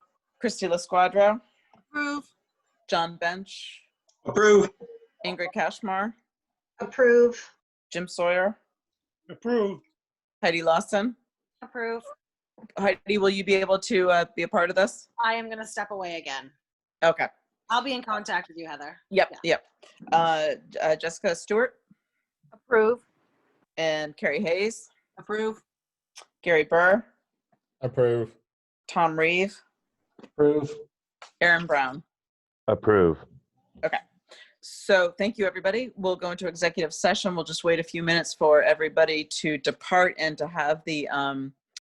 Christy LaSquadra, Approve. John Bench, Approve. Ingrid Kashmar, Approve. Jim Sawyer, Approve. Heidi Lawson. Approve. Heidi, will you be able to uh, be a part of this? I am going to step away again. Okay. I'll be in contact with you, Heather. Yep. Yep. Uh, uh, Jessica Stewart Approve. and Carrie Hayes, Approve. Gary Burr, Approve. Tom Reeve, Approve. Aaron Brown. Approve. So thank you, everybody. We'll go into executive session. We'll just wait a few minutes for everybody to depart and to have the um,